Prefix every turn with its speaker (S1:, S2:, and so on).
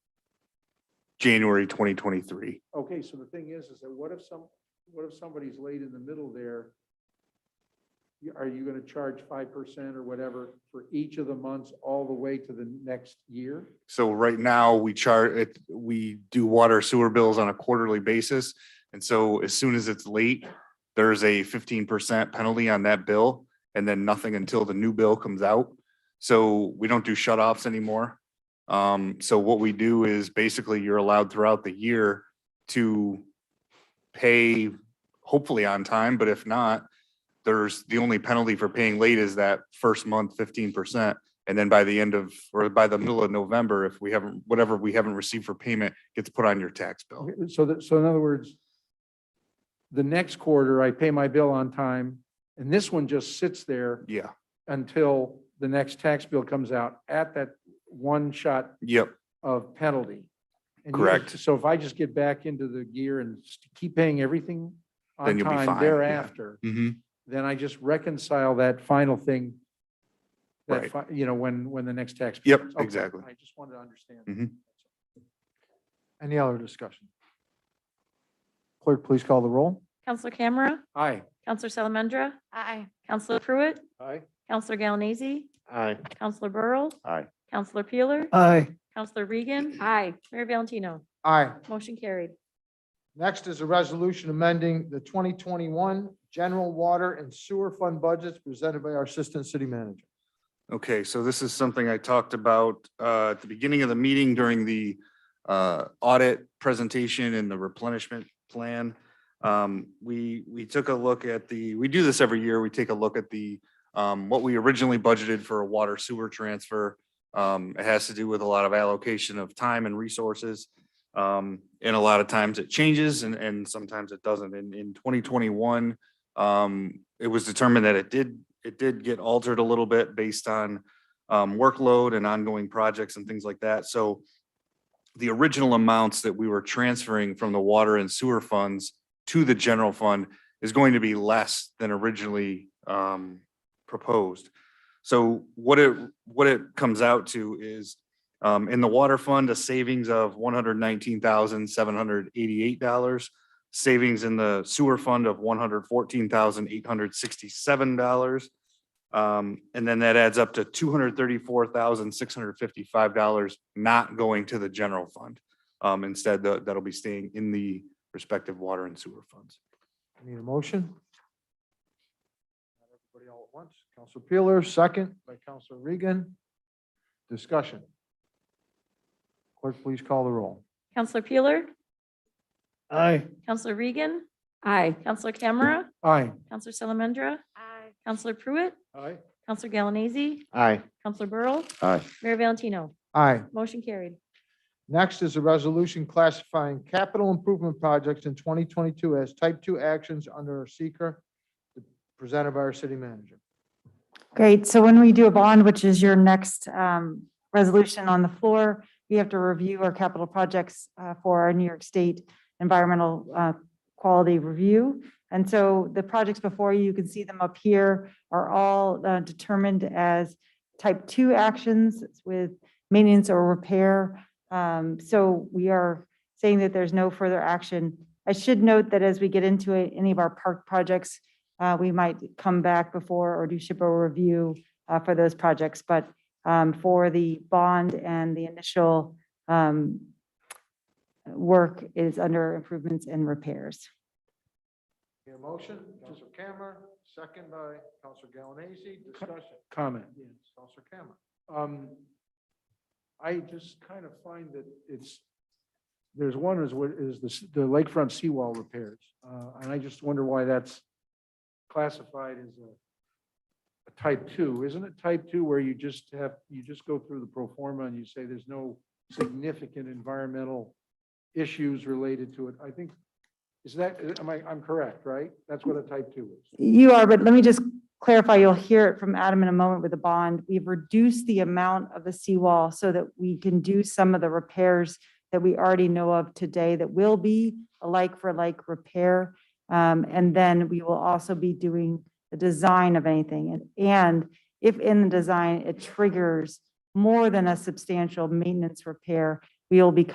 S1: January twenty twenty-three.
S2: Okay, so the thing is, is that what if some, what if somebody's late in the middle there? You- Are you gonna charge five percent or whatever for each of the months all the way to the next year?
S1: So right now, we chart it, we do water sewer bills on a quarterly basis. And so as soon as it's late, there's a fifteen percent penalty on that bill and then nothing until the new bill comes out. So we don't do shut offs anymore. Um, so what we do is basically you're allowed throughout the year to pay hopefully on time, but if not, there's the only penalty for paying late is that first month fifteen percent. And then by the end of, or by the middle of November, if we haven't, whatever we haven't received for payment gets put on your tax bill.
S2: Okay, so that, so in other words, the next quarter, I pay my bill on time, and this one just sits there
S1: Yeah,
S2: until the next tax bill comes out at that one shot
S1: yep,
S2: of penalty. And you-
S1: Correct.
S2: So if I just get back into the gear and s- keep paying everything on
S1: Then you'll be
S2: time
S1: fine, yeah.
S2: thereafter,
S1: hmm
S2: then I just reconcile that final thing. that
S1: Right.
S2: fi- You know, when, when the next tax.
S1: Yep,
S2: comes. Okay,
S1: exactly.
S2: I just wanted to understand.
S1: Mhm.
S2: Any other discussion? Clerk, please call the roll.
S3: Counselor Camera,
S2: Aye.
S3: Counselor Salamandra. Aye. Counselor Pruitt,
S2: Aye.
S3: Counselor Galanese,
S1: Aye.
S3: Counselor Burrow.
S1: Aye.
S3: Counselor Peeler,
S2: Aye.
S3: Counselor Regan. Aye. Mayor Valentino,
S4: Aye.
S3: motion carried.
S4: Next is a resolution amending the 2021 general water and sewer fund budgets presented by our Assistant City Manager.
S1: Okay, so this is something I talked about uh, at the beginning of the meeting during the uh, audit presentation and the replenishment plan. Um, We, we took a look at the, we do this every year. We take a look at the, um, what we originally budgeted for a water sewer transfer. Um, It has to do with a lot of allocation of time and resources. Um, And a lot of times it changes and, and sometimes it doesn't. In, in 2021, um, it was determined that it did, it did get altered a little bit based on um, workload and ongoing projects and things like that. So the original amounts that we were transferring from the water and sewer funds to the general fund is going to be less than originally um, proposed. So what it, what it comes out to is um, in the water fund, a savings of one hundred nineteen thousand, seven hundred eighty-eight dollars savings in the sewer fund of one hundred fourteen thousand eight hundred sixty-seven dollars. Um, and then that adds up to two hundred thirty-four thousand six hundred fifty-five dollars not going to the general fund. Um, instead, tha- that'll be staying in the respective water and sewer funds.
S4: Need a motion? Not Everybody all at once. Counselor Peeler, second by Counselor Regan. Discussion. Clerk, please call the roll.
S3: Counselor Peeler,
S4: Aye.
S3: Counselor Regan. Aye. Counselor Camera,
S2: Aye.
S3: Counselor Salamandra. Aye. Counselor Pruitt,
S4: Aye.
S3: Counselor Galanese,
S4: Aye.
S3: Counselor Burrow.
S1: Aye.
S3: Mayor Valentino,
S4: Aye.
S3: motion carried.
S4: Next is a resolution classifying capital improvement projects in 2022 as type 2 actions under our seeker presented by our city manager.
S5: Great. So when we do a bond, which is your next um, resolution on the floor, we have to review our capital projects uh, for our New York State environmental uh, quality review. And so the projects before you, you can see them up here, are all uh, determined as type two actions with maintenance or repair. Um, So we are saying that there's no further action. I should note that as we get into it, any of our park projects, uh, we might come back before or do SHPO review uh, for those projects. But um, for the bond and the initial um, work is under improvements and repairs.
S4: Your motion, Counselor Cammer, second by Counselor Galanese, discussion.
S2: Comment.
S4: Yes, Counselor Cammer.
S2: Um, I just kind of find that it's, there's one is what is the, s- the lakefront seawall repairs. Uh, and I just wonder why that's classified as a, a type two. Isn't it type two where you just have, you just go through the pro forma and you say there's no significant environmental issues related to it? I think, is that, am I, I'm correct, right? That's what a type two is.
S5: You are, but let me just clarify, you'll hear it from Adam in a moment with the bond. We've reduced the amount of the seawall so that we can do some of the repairs that we already know of today that will be a like for like repair. Um, And then we will also be doing the design of anything. And- And if in the design, it triggers more than a substantial maintenance repair, we will be